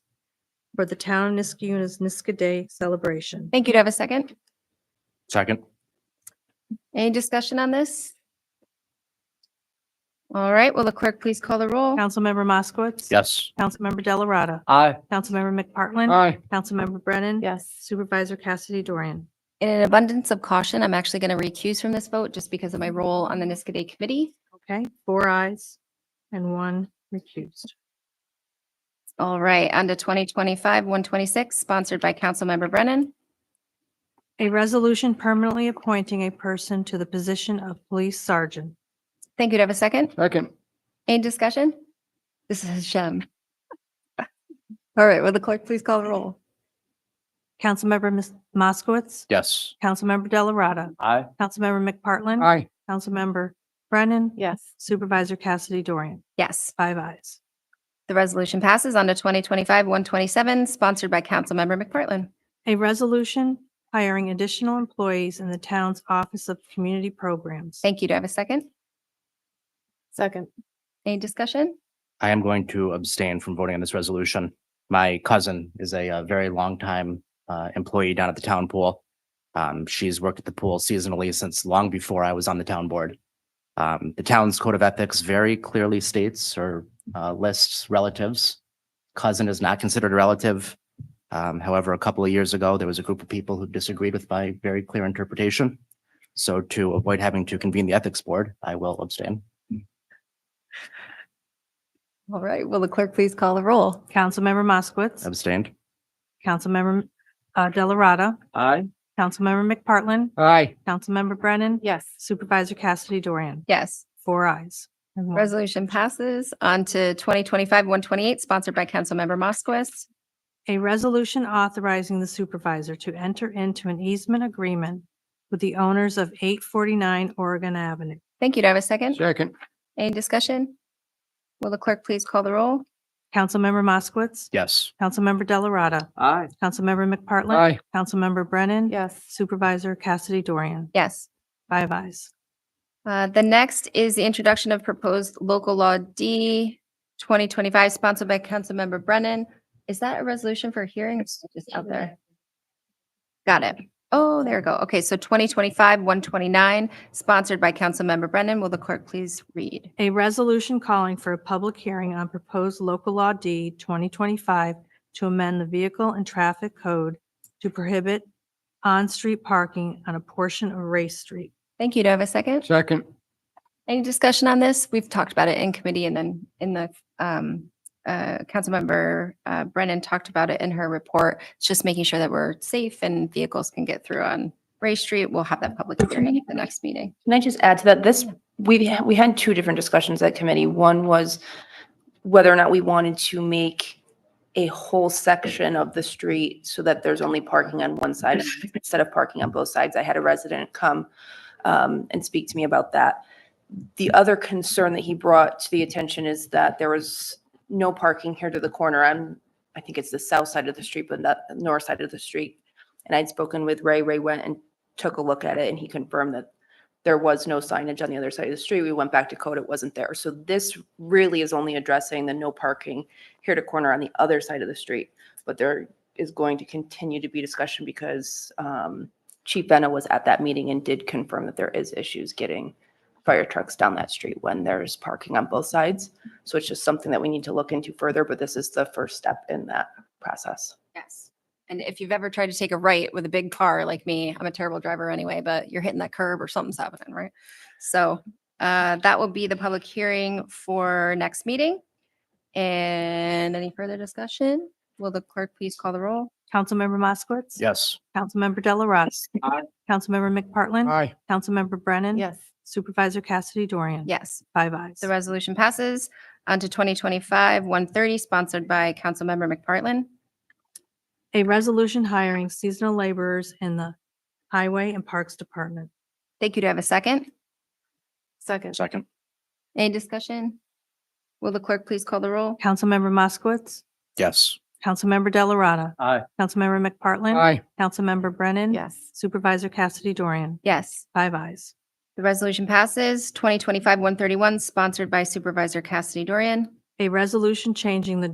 for the town of Niskayona's Niska Day celebration. Thank you. Do I have a second? Second. Any discussion on this? All right, will the clerk please call the roll? Councilmember Moskowitz. Yes. Councilmember Delarada. Aye. Councilmember McPartlin. Aye. Councilmember Brennan. Yes. Supervisor Cassidy Dorian. In an abundance of caution, I'm actually going to recuse from this vote just because of my role on the Niska Day Committee. Okay, four ayes and one recused. All right, on to 2025-126, sponsored by Councilmember Brennan. A resolution permanently appointing a person to the position of police sergeant. Thank you. Do I have a second? Second. Any discussion? This is Shem. All right, will the clerk please call the roll? Councilmember Ms. Moskowitz. Yes. Councilmember Delarada. Aye. Councilmember McPartlin. Aye. Councilmember Brennan. Yes. Supervisor Cassidy Dorian. Yes, Five ayes. the resolution passes on to 2025-127, sponsored by Councilmember McPartlin. A resolution hiring additional employees in the town's Office of Community Programs. Thank you. Do I have a second? Second. Any discussion? I am going to abstain from voting on this resolution. My cousin is a, uh very long time uh, employee down at the town pool. Um, she's worked at the pool seasonally since long before I was on the town board. Um, the town's code of ethics very clearly states or uh, lists relatives. Cousin is not considered a relative. Um, however, a couple of years ago, there was a group of people who disagreed with my very clear interpretation. So to avoid having to convene the ethics board, I will abstain. All right, will the clerk please call the roll? Councilmember Moskowitz. Abstained. Councilmember uh, Delarada. Aye. Councilmember McPartlin. Aye. Councilmember Brennan. Yes. Supervisor Cassidy Dorian. Yes, Four ayes. and Oh. one resolution passes on to 2025-128, sponsored by Councilmember Moskowitz. A resolution authorizing the supervisor to enter into an easement agreement with the owners of 849 Oregon Avenue. Thank you. Do I have a second? Second. Any discussion? Will the clerk please call the roll? Councilmember Moskowitz. Yes. Councilmember Delarada. Aye. Councilmember McPartlin. Councilmember Brennan. Yes. Supervisor Cassidy Dorian. Yes. Five ayes. Uh, The next is the introduction of proposed local law D 2025, sponsored by Councilmember Brennan. Is that a resolution for hearing? or is it Just out there. Got it. Oh, there we go. Okay, so 2025-129, sponsored by Councilmember Brennan. Will the clerk please read? A resolution calling for a public hearing on proposed local law D 2025 to amend the vehicle and traffic code to prohibit on-street parking on a portion of Race Street. Thank you. Do I have a second? Second. Any discussion on this? We've talked about it in committee and then in the, um, uh, Councilmember, uh, Brennan talked about it in her report. It's just making sure that we're safe and vehicles can get through on Ray Street. We'll have that public hearing at the next meeting. Can I just add to that? This, we, we had two different discussions at committee. One was whether or not we wanted to make a whole section of the street so that there's only parking on one side instead of parking on both sides. I had a resident come um, and speak to me about that. The other concern that he brought to the attention is that there was no parking here to the corner. I'm, I think it's the south side of the street, but not the north side of the street. And I'd spoken with Ray. Ray went and took a look at it and he confirmed that there was no signage on the other side of the street. We went back to code, it wasn't there. So this really is only addressing the no parking here to corner on the other side of the street. But there is going to continue to be discussion because um, Chief Benna was at that meeting and did confirm that there is issues getting fire trucks down that street when there's parking on both sides. So it's just something that we need to look into further, but this is the first step in that process. Yes. And if you've ever tried to take a right with a big car like me, I'm a terrible driver anyway, but you're hitting that curb or something's happening, right? So uh, that will be the public hearing for next meeting. And any further discussion? Will the clerk please call the roll? Councilmember Moskowitz. Yes. Councilmember Delarada. Aye. Councilmember McPartlin. Aye. Councilmember Brennan. Yes. Supervisor Cassidy Dorian. Yes, Five ayes. the resolution passes. On to 2025-130, sponsored by Councilmember McPartlin. A resolution hiring seasonal laborers in the Highway and Parks Department. Thank you. Do I have a second? Second. Second. Any discussion? Will the clerk please call the roll? Councilmember Moskowitz. Yes. Councilmember Delarada. Aye. Councilmember McPartlin. Councilmember Brennan. Yes. Supervisor Cassidy Dorian. Yes, Five ayes. the resolution passes. 2025-131, sponsored by Supervisor Cassidy Dorian. A resolution changing the